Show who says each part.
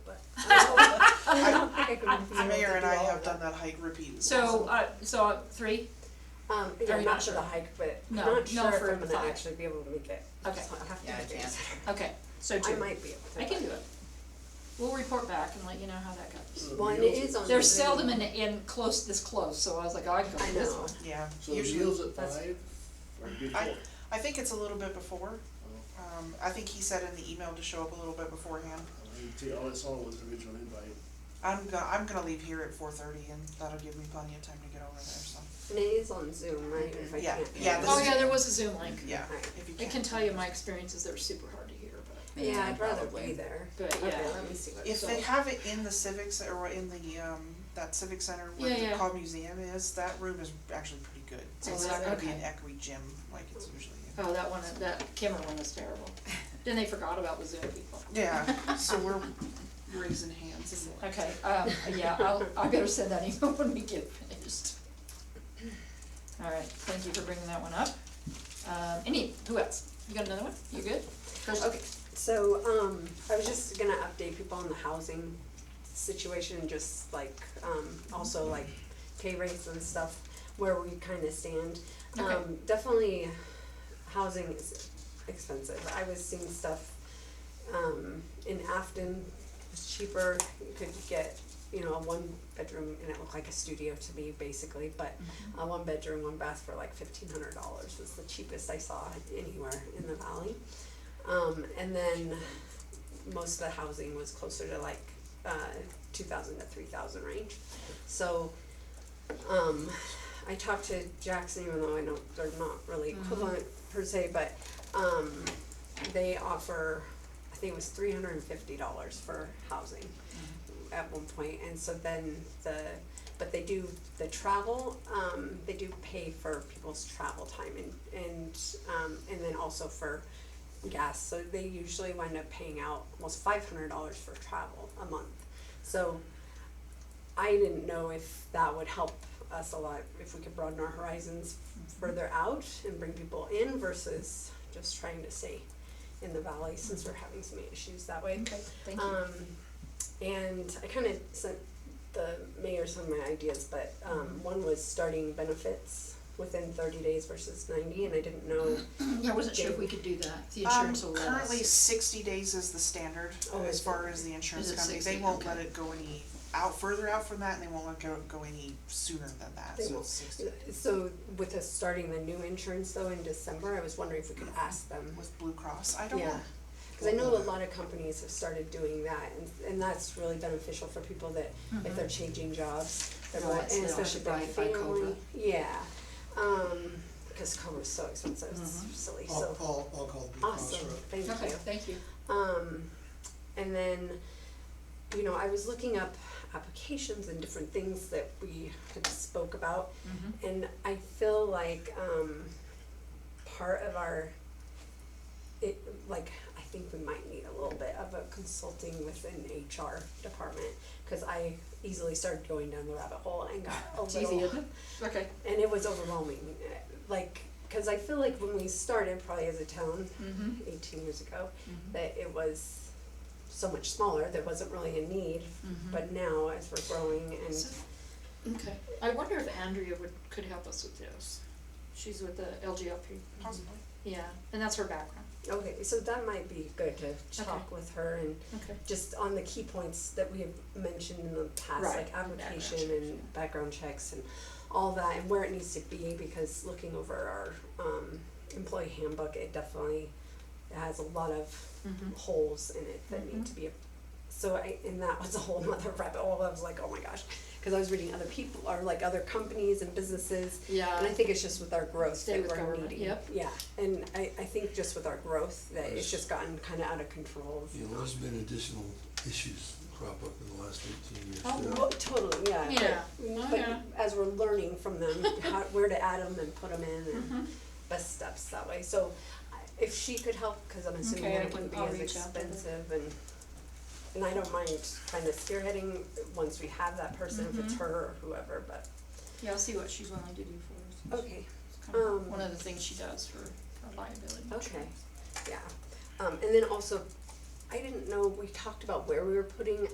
Speaker 1: Pick a
Speaker 2: I-
Speaker 1: repeater.
Speaker 2: I-
Speaker 3: Mayor and I have done that hike repeatedly.
Speaker 2: So, uh, so uh, three,
Speaker 1: Um,
Speaker 2: Are
Speaker 1: yeah,
Speaker 2: we
Speaker 1: I'm
Speaker 2: not
Speaker 1: not sure
Speaker 2: sure?
Speaker 1: the hike, but
Speaker 2: No,
Speaker 1: not
Speaker 2: no
Speaker 1: sure if
Speaker 2: for
Speaker 1: I'm gonna
Speaker 2: five.
Speaker 1: actually be able to make it.
Speaker 2: Okay.
Speaker 1: So I'll have to
Speaker 4: Yeah, I
Speaker 1: look at
Speaker 4: can't.
Speaker 1: it.
Speaker 2: okay, so
Speaker 1: I
Speaker 2: two.
Speaker 1: might be able to.
Speaker 2: I can do it. We'll report back and let you know how that goes.
Speaker 1: Well, and it is on.
Speaker 2: They're
Speaker 1: the Zoom.
Speaker 2: seldom in, in close, this close, so I was like, oh, I can go
Speaker 1: I
Speaker 2: to this
Speaker 1: know.
Speaker 2: one.
Speaker 3: Yeah,
Speaker 4: So the
Speaker 3: usually,
Speaker 4: meal's at
Speaker 1: That's-
Speaker 4: five or before?
Speaker 3: I, I think it's a little bit before. Um, I think he said in the email to show up a little bit beforehand.
Speaker 4: All I saw was the original invite.
Speaker 3: I'm gonna, I'm gonna leave here at four thirty and that'll give me plenty of time to get over there, so,
Speaker 1: And it is on Zoom, right? If I
Speaker 3: Yeah,
Speaker 1: can't.
Speaker 3: yeah,
Speaker 1: do it.
Speaker 3: this
Speaker 2: Oh,
Speaker 3: is-
Speaker 2: yeah, there was a Zoom link.
Speaker 3: yeah,
Speaker 1: Right.
Speaker 3: if you
Speaker 2: I
Speaker 3: can.
Speaker 2: can tell you my experiences, they were super hard to hear, but,
Speaker 1: Yeah, I'd rather be
Speaker 5: Probably.
Speaker 1: there.
Speaker 2: but yeah.
Speaker 1: Okay, let me see what.
Speaker 3: If they have it in the civics or in the, um, that civic center where
Speaker 2: Yeah,
Speaker 3: the
Speaker 2: yeah.
Speaker 3: Cobb Museum is, that room is actually pretty good. So
Speaker 2: Oh,
Speaker 3: it's
Speaker 2: is
Speaker 3: not
Speaker 2: it?
Speaker 3: gonna be an
Speaker 2: Okay.
Speaker 3: echoey gym like it's usually.
Speaker 2: Oh, that one, that camera one was terrible. Then they forgot about the Zoom people.
Speaker 3: Yeah, so we're raising hands and.
Speaker 2: Okay, um, yeah, I'll, I better send that email when we get finished. All right, thank you for bringing that one up. Um, any, who else? You got another one? You good? Kirsten?
Speaker 1: Okay, so, um, I was just gonna update people on the housing situation, just like, um, also like pay rates and stuff, where we kinda stand.
Speaker 2: Okay.
Speaker 1: Um, definitely, housing is expensive, I was seeing stuff, um, in Afton was cheaper, you could get, you know, a one bedroom, and it looked like a studio to me, basically, but a one bedroom, one bath for like fifteen hundred dollars was the cheapest I saw anywhere in the valley. Um, and then most of the housing was closer to like, uh, two thousand to three thousand range. So, um, I talked to Jackson, even though I know they're not really equivalent per se, but, um, they offer, I think it was three hundred and fifty dollars for housing at one point, and so then the, but they do the travel, um, they do pay for people's travel time and, and, um, and then also for gas, so they usually wind up paying out almost five hundred dollars for travel a month. So I didn't know if that would help us a lot, if we could broaden our horizons further out and bring people in versus just trying to stay in the valley since we're having so many issues that way.
Speaker 2: Okay, thank you.
Speaker 1: Um, and I kind of sent the mayor some of my ideas, but,
Speaker 2: Mm-hmm.
Speaker 1: um, one was starting benefits within thirty days versus ninety, and I didn't know,
Speaker 2: Yeah, I wasn't sure if we could do that, the
Speaker 3: Um,
Speaker 2: insurance will let us.
Speaker 3: currently sixty days is the standard
Speaker 1: Oh,
Speaker 3: as
Speaker 1: is
Speaker 3: far
Speaker 1: it?
Speaker 3: as the insurance
Speaker 2: Is it
Speaker 3: company,
Speaker 2: 60?
Speaker 3: they won't
Speaker 2: Okay.
Speaker 3: let it go any out, further out from that, and they won't let go, go any sooner than that,
Speaker 1: They
Speaker 3: so
Speaker 1: won't.
Speaker 3: it's sixty days.
Speaker 1: so with us starting the new insurance though in December, I was wondering if we could ask them.
Speaker 3: With Blue Cross, I don't
Speaker 1: Yeah,
Speaker 3: know,
Speaker 1: cause I know a lot of companies have started doing that and, and that's really beneficial for people that, if
Speaker 2: Mm-hmm.
Speaker 1: they're changing jobs, they're,
Speaker 2: Right,
Speaker 1: going-
Speaker 2: so
Speaker 1: and
Speaker 2: they
Speaker 1: especially if
Speaker 2: don't
Speaker 1: they're
Speaker 2: have to buy- buy
Speaker 1: family,
Speaker 2: Cobra.
Speaker 1: yeah, um, cause cobra's so expensive, it's silly, so.
Speaker 6: I'll, I'll, I'll call the Blue Cross
Speaker 1: Awesome,
Speaker 6: Rep.
Speaker 1: thank you.
Speaker 2: Mm-hmm. Okay, thank you.
Speaker 1: Um, and then, you know, I was looking up applications and different things that we had spoke about.
Speaker 2: Mm-hmm.
Speaker 1: And I feel like, um, part of our, it, like, I think we might need a little bit of a consulting with an HR department. Cause I easily started going down the rabbit hole and got a
Speaker 2: It's
Speaker 1: little
Speaker 2: easy, isn't it? Okay.
Speaker 1: and it was overwhelming. uh, Like, because I feel like when we started, probably as a town,
Speaker 2: mm-hmm,
Speaker 1: 18 years ago, that it was so much smaller. There wasn't really a need, but now as we're growing and
Speaker 2: Mm-hmm. So- mm-hmm. Okay, I wonder if Andrea would, could help us with this. She's with the LGLP,
Speaker 3: possibly.
Speaker 2: yeah, and that's her background.
Speaker 1: okay, so that might be good to talk
Speaker 2: Okay.
Speaker 1: with her and
Speaker 2: Okay.
Speaker 1: just on the key points that we have mentioned in the past,
Speaker 2: Right.
Speaker 1: like application
Speaker 2: Background checks, yeah.
Speaker 1: and background checks and all that, and where it needs to be, because looking over our um, employee handbook, it definitely has a lot of
Speaker 2: Mhm.
Speaker 1: holes in it that need to be. So I, and that was a whole nother rabbit hole. I was like, oh my gosh, because I was reading other people or like other companies and businesses, and I
Speaker 2: Yeah,
Speaker 1: think it's just with our growth
Speaker 2: Stay
Speaker 1: that
Speaker 2: with
Speaker 1: we're
Speaker 2: government,
Speaker 1: needing.
Speaker 2: yep.
Speaker 1: Yeah, and I, I think just with our growth that it's just gotten kind of out of control. of
Speaker 6: You know, there's been additional issues crop up in the last eighteen years.
Speaker 2: Oh,
Speaker 6: too.
Speaker 1: Well, totally, yeah. but-
Speaker 2: Yeah. Oh, Yeah.
Speaker 1: But as we're learning from them, how, where to add them and put them in
Speaker 2: Mm-hmm.
Speaker 1: and best steps that way, so I- if she could help, cause I'm assuming
Speaker 2: Okay,
Speaker 1: that
Speaker 2: I
Speaker 1: it wouldn't be
Speaker 2: can- I'll
Speaker 1: as
Speaker 2: reach out to her.
Speaker 1: expensive and and I don't mind kind of spearheading once we have that person, if
Speaker 2: Mm-hmm.
Speaker 1: it's her or whoever, but,
Speaker 2: yeah, I'll see what she's willing to do for us.
Speaker 1: okay,
Speaker 2: It's kind of
Speaker 1: um, Oh,
Speaker 2: One of the things she does for her liability.
Speaker 1: okay, yeah. Um, and then also, I didn't know, we talked about where we were putting